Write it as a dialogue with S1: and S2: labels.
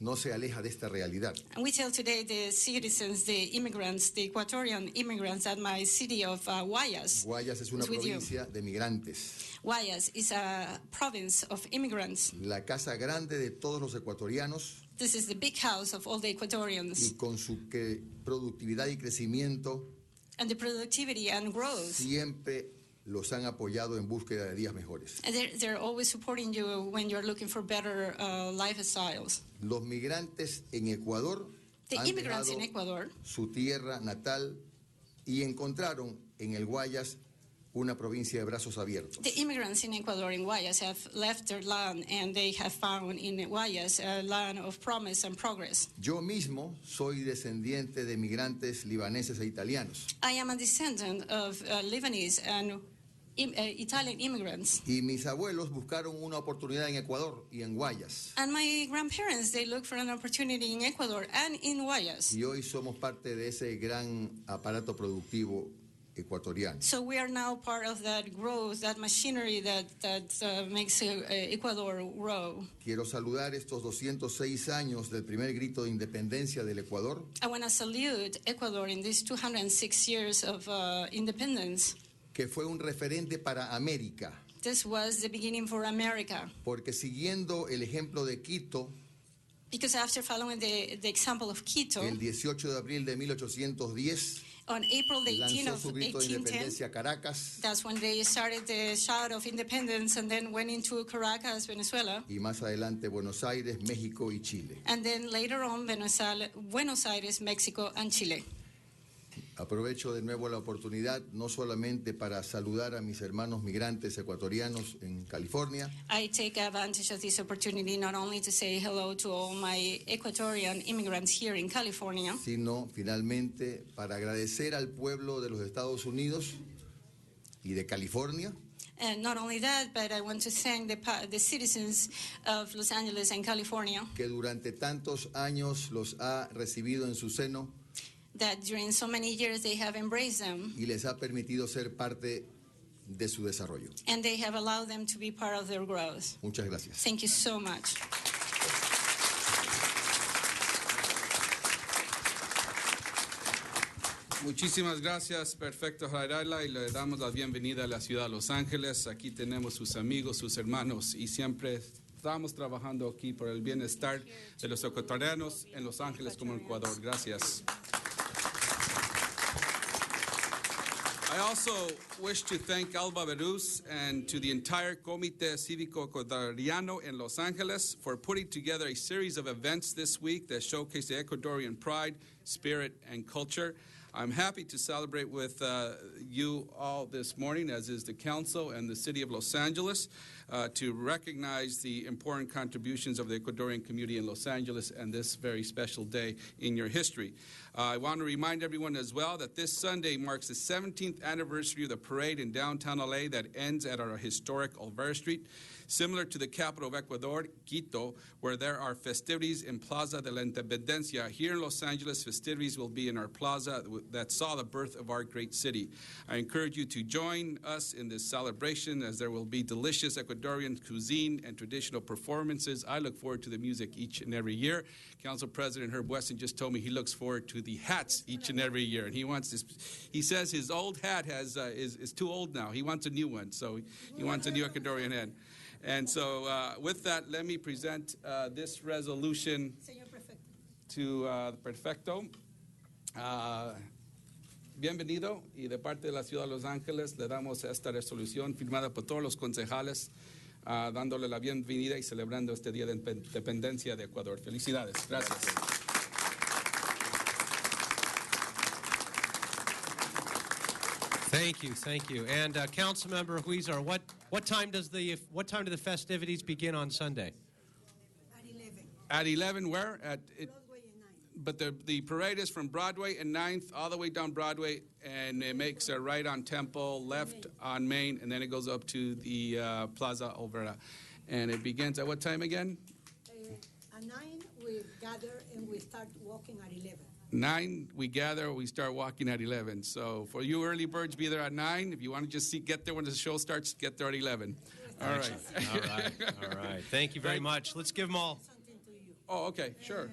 S1: no se aleja de esta realidad.
S2: And we tell today the citizens, the immigrants, the Ecuadorian immigrants at my city of uh, Guayas.
S1: Guayas es una
S2: It's with you.
S1: provincia de migrantes,
S2: Guayas is a province of immigrants.
S1: la casa grande de todos los ecuatorianos
S2: This is the big house of all the
S1: y
S2: Ecuadorians.
S1: con su que- productividad y crecimiento
S2: And the productivity and growth,
S1: siempre los han apoyado en búsqueda de días mejores.
S2: and they're, they're always supporting you when you're looking for better uh, lifestyles.
S1: Los migrantes en Ecuador
S2: The
S1: han
S2: immigrants in
S1: dejado
S2: Ecuador,
S1: su tierra natal y encontraron en el Guayas una provincia de brazos abiertos.
S2: the immigrants in Ecuador in Guayas have left their land and they have found in Guayas a land of promise and progress.
S1: Yo mismo soy descendiente de migrantes libaneses e italianos
S2: I am a descendant of uh, Lebanese and im- uh, Italian immigrants.
S1: y mis abuelos buscaron una oportunidad en Ecuador y en Guayas
S2: And my grandparents, they looked for an opportunity in Ecuador and in Guayas.
S1: y hoy somos parte de ese gran aparato productivo ecuatoriano.
S2: So we are now part of that growth, that machinery that, that uh, makes uh, uh, Ecuador grow.
S1: Quiero saludar estos 206 años del primer grito de independencia del Ecuador
S2: I want to salute Ecuador in these 206 years of uh, independence.
S1: que fue un referente para América,
S2: This was the beginning for America.
S1: porque siguiendo el ejemplo de Quito,
S2: Because after following the, the example of Quito,
S1: el 18 de abril de 1810
S2: on April the 18th
S1: lanzó
S2: of
S1: su grito de
S2: 1810,
S1: independencia a Caracas
S2: That's when they started the shout of independence and then went into Caracas, Venezuela.
S1: y más adelante Buenos Aires, México y Chile.
S2: And then later on, Venezuela, Buenos Aires, Mexico, and Chile.
S1: Aprovecho de nuevo la oportunidad no solamente para saludar a mis hermanos migrantes ecuatorianos en California,
S2: I take advantage of this opportunity not only to say hello to all my Ecuadorian immigrants here in California,
S1: sino finalmente para agradecer al pueblo de los Estados Unidos y de California
S2: and not only that, but I want to thank the, pa- the citizens of Los Angeles and California
S1: que durante tantos años los ha recibido en su seno
S2: that during so many years they have embraced them
S1: y les ha permitido ser parte de su desarrollo.
S2: and they have allowed them to be part of their growth.
S1: Muchas gracias.
S2: Thank you so much.
S3: Muchísimas gracias, Perfecto Jarayla, y le damos la bienvenida a la ciudad de Los Ángeles. Aquí tenemos sus amigos, sus hermanos, y siempre estamos trabajando aquí por el bienestar de los ecuatorianos en Los Ángeles como en Ecuador. Gracias. I also wish to thank Alba Beruz and to the entire Comité Cívico Ecuadoriano in Los Angeles for putting together a series of events this week that showcase the Ecuadorian pride, spirit, and culture. I'm happy to celebrate with uh, you all this morning, as is the Council and the City of Los Angeles, uh, to recognize the important contributions of the Ecuadorian community in Los Angeles and this very special day in your history. Uh, I want to remind everyone as well that this Sunday marks the 17th anniversary of the parade in downtown LA that ends at our historic Olvera Street. Similar to the capital of Ecuador, Quito, where there are festivities in Plaza de la Independencia, here in Los Angeles, festivities will be in our plaza that saw the birth of our great city. I encourage you to join us in this celebration as there will be delicious Ecuadorian cuisine and traditional performances. I look forward to the music each and every year. Council President Herb Weston just told me he looks forward to the hats each and every year, and he wants this. He says his old hat has uh, is is too old now. He wants a new one, so he wants a new Ecuadorian hat. And so, uh, with that, let me present uh, this resolution to uh, Perfecto. Uh, bienvenido y de parte de la ciudad de Los Ángeles le damos esta resolución firmada por todos los concejales, ah, dándole la bienvenida y celebrando este Día de Independencia de Ecuador. Felicidades. Gracias.
S4: Thank you, thank you. And uh, Councilmember Huizar, what, what time does the what time do the festivities begin on Sunday?
S5: at 11.
S3: At 11, where? At, it,
S5: Broadway at 9.
S3: but the, the parade is from Broadway and 9th all the way down Broadway, and it makes a right on Temple, left on Main, and then it goes up to the uh, Plaza Olvera. And it begins at what time again?
S5: Uh, at 9, we gather and we start walking at 11.
S3: Nine, we gather, we start walking at 11. So for you early birds, be there at nine. If you want to just see, get there when the show starts, get there at 11. All right.
S4: All right, all right. Thank you very much. Let's give them all.
S5: Something to you.
S3: Oh, okay, sure.